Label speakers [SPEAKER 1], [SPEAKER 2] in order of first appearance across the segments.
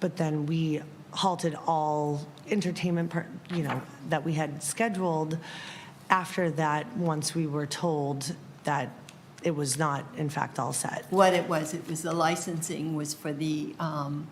[SPEAKER 1] but then we halted all entertainment, par- you know, that we had scheduled after that, once we were told that it was not, in fact, all set,
[SPEAKER 2] What it was, it was the licensing was for the um,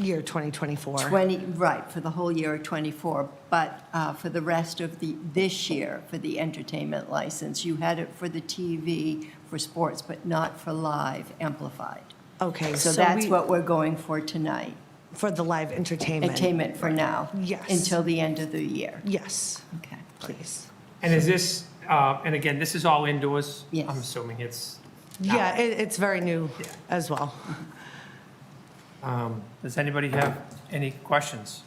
[SPEAKER 1] year 2024.
[SPEAKER 2] 20, right, for the whole year of '24, but uh, for the rest of the, this year, for the entertainment license, you had it for the TV, for sports, but not for live amplified.
[SPEAKER 1] Okay,
[SPEAKER 2] So that's
[SPEAKER 1] we-
[SPEAKER 2] what we're going for tonight,
[SPEAKER 1] For the live entertainment.
[SPEAKER 2] entertainment for now.
[SPEAKER 1] Yes.
[SPEAKER 2] Until the end of the year.
[SPEAKER 1] Yes,
[SPEAKER 2] Okay.
[SPEAKER 1] please.
[SPEAKER 3] And is this, uh, and again, this is all indoors?
[SPEAKER 2] Yes.
[SPEAKER 3] I'm assuming it's,
[SPEAKER 1] Yeah, it, it's very new
[SPEAKER 3] Yeah.
[SPEAKER 1] as well.
[SPEAKER 3] does anybody have any questions?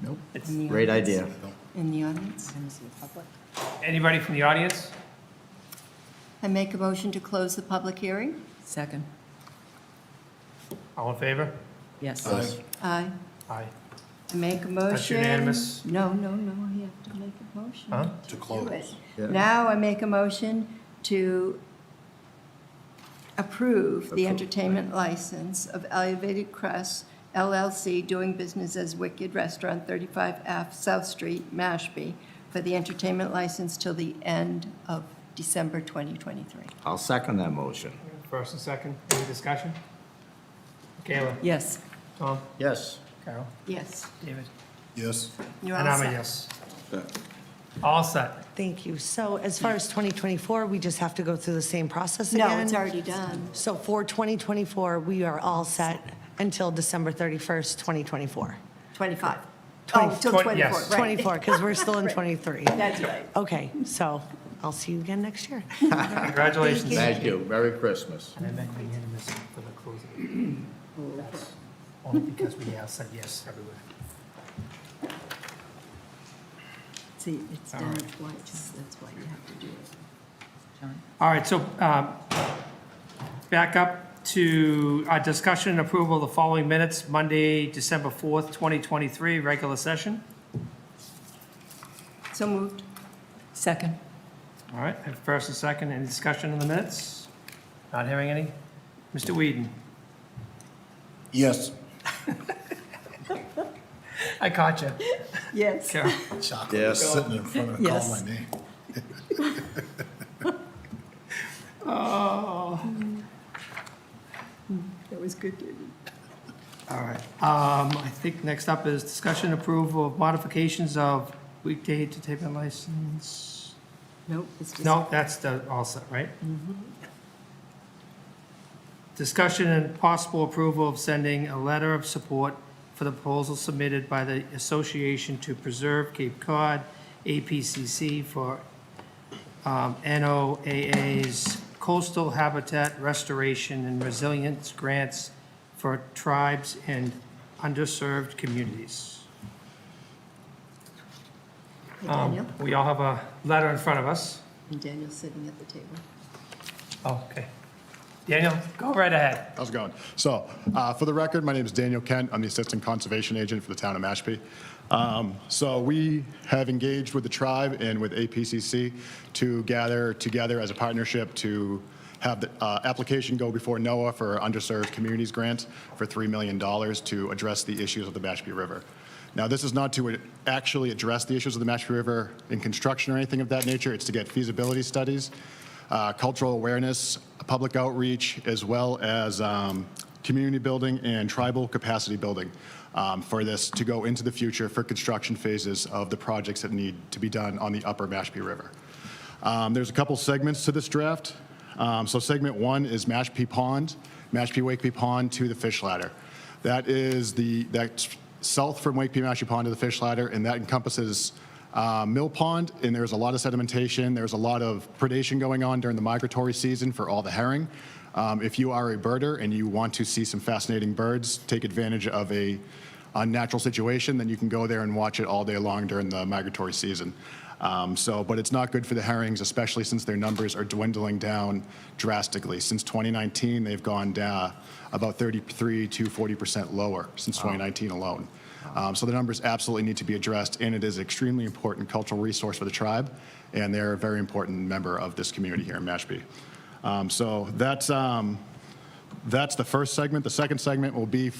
[SPEAKER 4] Nope.
[SPEAKER 3] It's-
[SPEAKER 2] In the
[SPEAKER 4] Great
[SPEAKER 2] audience?
[SPEAKER 4] idea.
[SPEAKER 2] In the audience?
[SPEAKER 3] Anybody from the audience?
[SPEAKER 2] I make a motion to close the public hearing?
[SPEAKER 5] Second,
[SPEAKER 3] All in favor?
[SPEAKER 5] yes.
[SPEAKER 2] Aye.
[SPEAKER 3] Aye.
[SPEAKER 2] I make a motion.
[SPEAKER 3] unanimous.
[SPEAKER 2] No, no, no, you have to make a motion.
[SPEAKER 3] Huh?
[SPEAKER 2] to do it.
[SPEAKER 4] Yeah.
[SPEAKER 2] Now I make a motion to approve the entertainment license of Elevated Crest LLC doing business as Wicked Restaurant, 35 F South Street, Mashpee, for the entertainment license till the end of December 2023.
[SPEAKER 4] I'll second that motion.
[SPEAKER 3] First and second, any discussion? Kayla,
[SPEAKER 5] Yes,
[SPEAKER 3] Tom,
[SPEAKER 4] Yes.
[SPEAKER 3] Carol,
[SPEAKER 2] Yes.
[SPEAKER 3] David?
[SPEAKER 6] Yes.
[SPEAKER 2] You're
[SPEAKER 3] And
[SPEAKER 2] all
[SPEAKER 3] I'm a
[SPEAKER 2] set.
[SPEAKER 3] yes. All set.
[SPEAKER 1] Thank you. So as far as 2024, we just have to go through the same process again?
[SPEAKER 2] No, it's already done.
[SPEAKER 1] So for 2024, we are all set until December 31st, 2024.
[SPEAKER 2] 25. Oh, till
[SPEAKER 3] Twen-
[SPEAKER 2] 24,
[SPEAKER 3] yes.
[SPEAKER 2] right.
[SPEAKER 1] 24, because we're still in 23.
[SPEAKER 2] That's right.
[SPEAKER 1] Okay, so I'll see you again next year.
[SPEAKER 3] Congratulations.
[SPEAKER 4] Thank you. Merry Christmas.
[SPEAKER 3] And then that unanimous for the closing. That's Only because we all said yes everywhere.
[SPEAKER 2] See, it's
[SPEAKER 3] All
[SPEAKER 2] done
[SPEAKER 3] right.
[SPEAKER 2] twice, that's why you have to do it.
[SPEAKER 5] John?
[SPEAKER 3] All right, so um, back up to our discussion and approval of the following minutes, Monday, December 4th, 2023, regular session.
[SPEAKER 2] So moved.
[SPEAKER 5] Second,
[SPEAKER 3] All right, have first and second, any discussion on the minutes? Not hearing any? Mr. Whedon?
[SPEAKER 6] Yes.
[SPEAKER 3] I caught you.
[SPEAKER 2] Yes.
[SPEAKER 3] Carol?
[SPEAKER 6] Chocolate
[SPEAKER 4] Yes.
[SPEAKER 6] sitting in front of it, call
[SPEAKER 5] Yes.
[SPEAKER 6] my name.
[SPEAKER 3] Oh.
[SPEAKER 2] That was good, David.
[SPEAKER 3] All right, um, I think next up is discussion and approval of modifications of weekday entertainment license.
[SPEAKER 2] Nope, it's just. Mm-hmm.
[SPEAKER 3] No, that's the, all set, right? Discussion and possible approval of sending a letter of support for the proposal submitted by the Association to Preserve Cape Cod, APCC, for um, NOAA's Coastal Habitat Restoration and Resilience Grants for Tribes and Underserved Communities.
[SPEAKER 2] Hey,
[SPEAKER 3] Um,
[SPEAKER 2] Daniel,
[SPEAKER 3] We all have a letter in front of us.
[SPEAKER 2] and Daniel's sitting at the table.
[SPEAKER 3] Okay. Daniel, go right ahead.
[SPEAKER 7] How's it going? So, uh, for the record, my name is Daniel Kent. I'm the Assistant Conservation Agent for the town of Mashpee. Um, So, we have engaged with the tribe and with APCC to gather together as a partnership to have the uh, application go before NOAA for underserved communities grant for $3 million to address the issues of the Mashpee River. Now, this is not to actually address the issues of the Mashpee River in construction or anything of that nature. It's to get feasibility studies uh, cultural awareness, public outreach, as well as um, community building and tribal capacity building um, for this to go into the future for construction phases of the projects that need to be done on the upper Mashpee River. Um, There's a couple segments to this draft. Um, So segment one is Mashpee Pond, Mashpee Wakeby Pond to the fish ladder. That is the, that's south from Wakeby Mashpee Pond to the fish ladder, and that encompasses uh, Mill Pond, and there's a lot of sedimentation. There's a lot of predation going on during the migratory season for all the herring. Um, if you are a birder and you want to see some fascinating birds, take advantage of a unnatural situation, then you can go there and watch it all day long during the migratory season. Um, so, but it's not good for the herrings, especially since their numbers are dwindling down drastically. Since 2019, they've gone down about 33 to 40 percent lower since 2019 alone. Um, so the numbers absolutely need to be addressed, and it is an extremely important cultural resource for the tribe, and they're a very important member of this community here in Mashpee. Um, so that's um, that's the first segment. The second segment will be